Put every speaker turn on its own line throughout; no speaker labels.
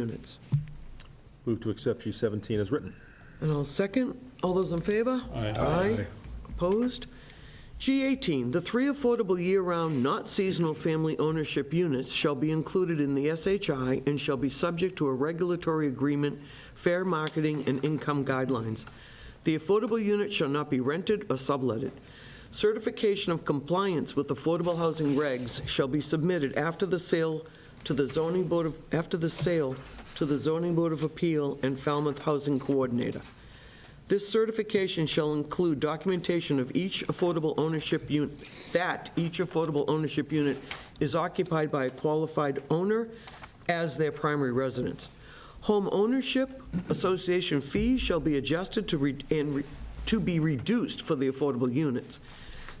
units.
Move to accept G17 as written.
And I'll second. All those in favor?
Aye.
Aye. Opposed? G18, the three affordable year-round, not seasonal family ownership units shall be included in the SHI and shall be subject to a regulatory agreement, fair marketing, and income guidelines. The affordable unit shall not be rented or subletted. Certification of compliance with affordable housing regs shall be submitted after the sale to the zoning board of, after the sale to the zoning board of appeal and Falmouth Housing Coordinator. This certification shall include documentation of each affordable ownership unit, that each affordable ownership unit is occupied by a qualified owner as their primary residence. Home ownership association fees shall be adjusted to, re- and re- to be reduced for the affordable units.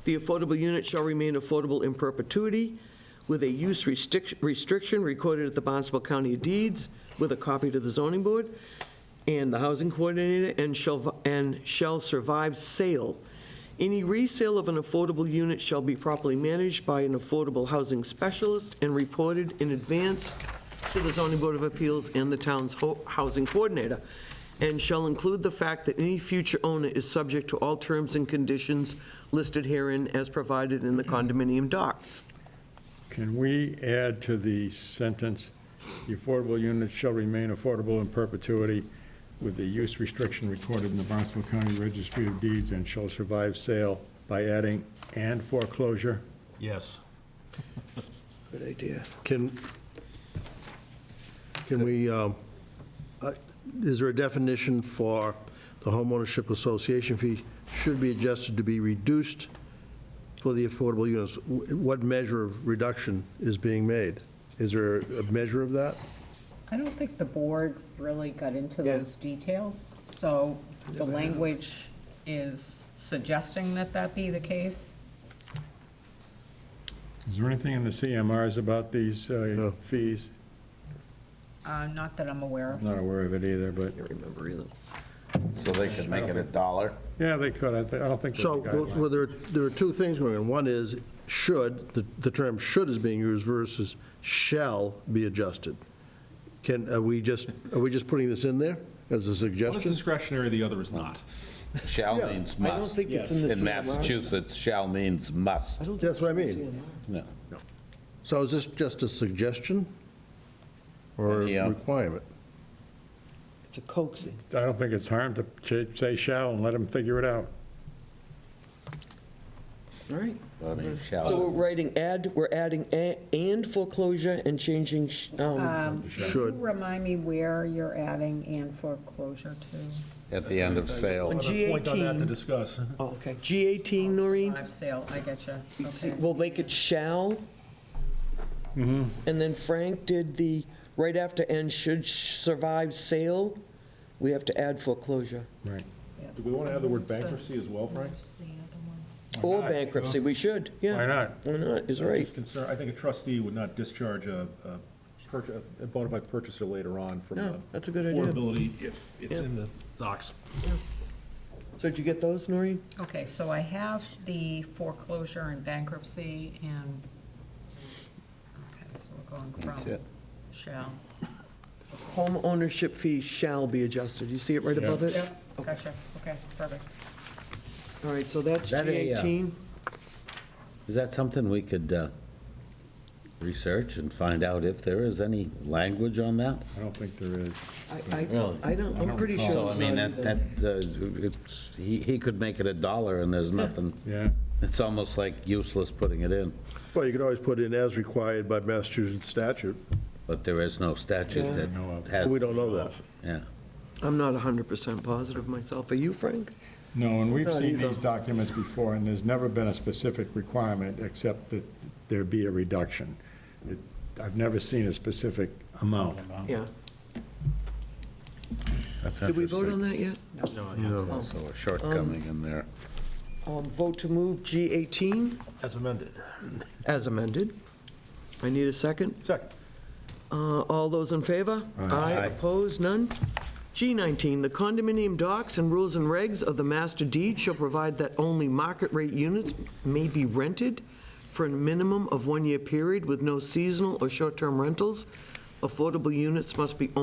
The affordable unit shall remain affordable in perpetuity with a use restric- restriction recorded at the Barnstable County Deeds with a copy to the zoning board and the housing coordinator, and shall, and shall survive sale. Any resale of an affordable unit shall be properly managed by an affordable housing specialist and reported in advance to the zoning board of appeals and the town's ho- housing coordinator, and shall include the fact that any future owner is subject to all terms and conditions listed herein as provided in the condominium docs.
Can we add to the sentence, "The affordable units shall remain affordable in perpetuity with the use restriction recorded in the Barnstable County Registry of Deeds and shall survive sale" by adding "and foreclosure"?
Yes.
Good idea.
Can, can we, um, uh, is there a definition for the homeownership association fee should be adjusted to be reduced for the affordable units? Wh- What measure of reduction is being made? Is there a measure of that?
I don't think the board really got into
Yeah.
those details, so the language is suggesting that that be the case.
Is there anything in the CMRs about these uh,
No.
fees?
Uh, Not that I'm aware of.
I'm not aware of it either, but,
Can't remember either.
So they could make it a dollar?
yeah, they could, I thi- I don't think. there's a
So, well,
guideline.
well, there, there are two things going on. One is should, the, the term should is being used versus shall be adjusted. Can, are we just, are we just putting this in there as a
One is
suggestion?
discretionary, the other is not.
Shall means
I
must.
don't think it's in the same
In Massachusetts, shall means must.
That's what I mean.
No.
So is this just a suggestion or
Yeah.
a requirement?
It's a coaxing.
I don't think it's harm to ch- say shall and let them figure it out.
All right.
I mean,
So we're
shall,
writing add, we're adding a- and foreclosure and changing, sh- um,
Um,
Should.
Remind me where you're adding and foreclosure to.
at the end of
On
sale.
G18.
Point on that to discuss.
oh, okay. G18, Noreen?
Live sale, I get you.
See, We'll make it shall.
Mm-hmm.
And then Frank did the, right after and should sh- survive sale, we have to add foreclosure.
Right.
Do we want to add the word bankruptcy as well, Frank?
Or
not?
bankruptcy, we should, yeah.
Why not?
Why not, is right.
It's concern- I think a trustee would not discharge a, a purch- a bona fide purchaser later on from
No,
the
that's a good idea.
Affordability, if it's
Yeah.
in the docs.
So did you get those, Noreen?
Okay, so I have the foreclosure and bankruptcy and, okay, so we're going from
Okay.
shall.
Home ownership fee shall be adjusted. You see it right above it?
Yep, gotcha, okay, perfect.
All right, so that's
That a, uh,
G18.
Is that something we could uh, research and find out if there is any language on that?
I don't think there is.
I,
Really?
I, I don't, I'm pretty sure.
So, I
it's
mean,
not
that,
either.
that, uh, it's, he, he could make it a dollar and there's nothing.
Yeah.
It's almost like useless putting it in,
Well, you could always put in as required by Massachusetts statute.
but there is no statute
Yeah.
that
No, uh,
has.
We don't know Oh, that.
Yeah.
I'm not 100% positive myself. Are you, Frank?
No, and we've
Not
seen
either.
these documents before, and there's never been a specific requirement except that there be a reduction. It- I've never seen a specific amount.
Yeah.
That's
Did we vote on that yet?
No, so a shortcoming in there.
Um, Vote to move G18
As amended.
as amended. I need a second.
Second.
Uh, All those in favor? Aye. Opposed? None? G19, the condominium docs and rules and regs of the master deed shall provide that only market rate units may be rented for a minimum of one-year period with no seasonal or short-term rentals. Affordable units must be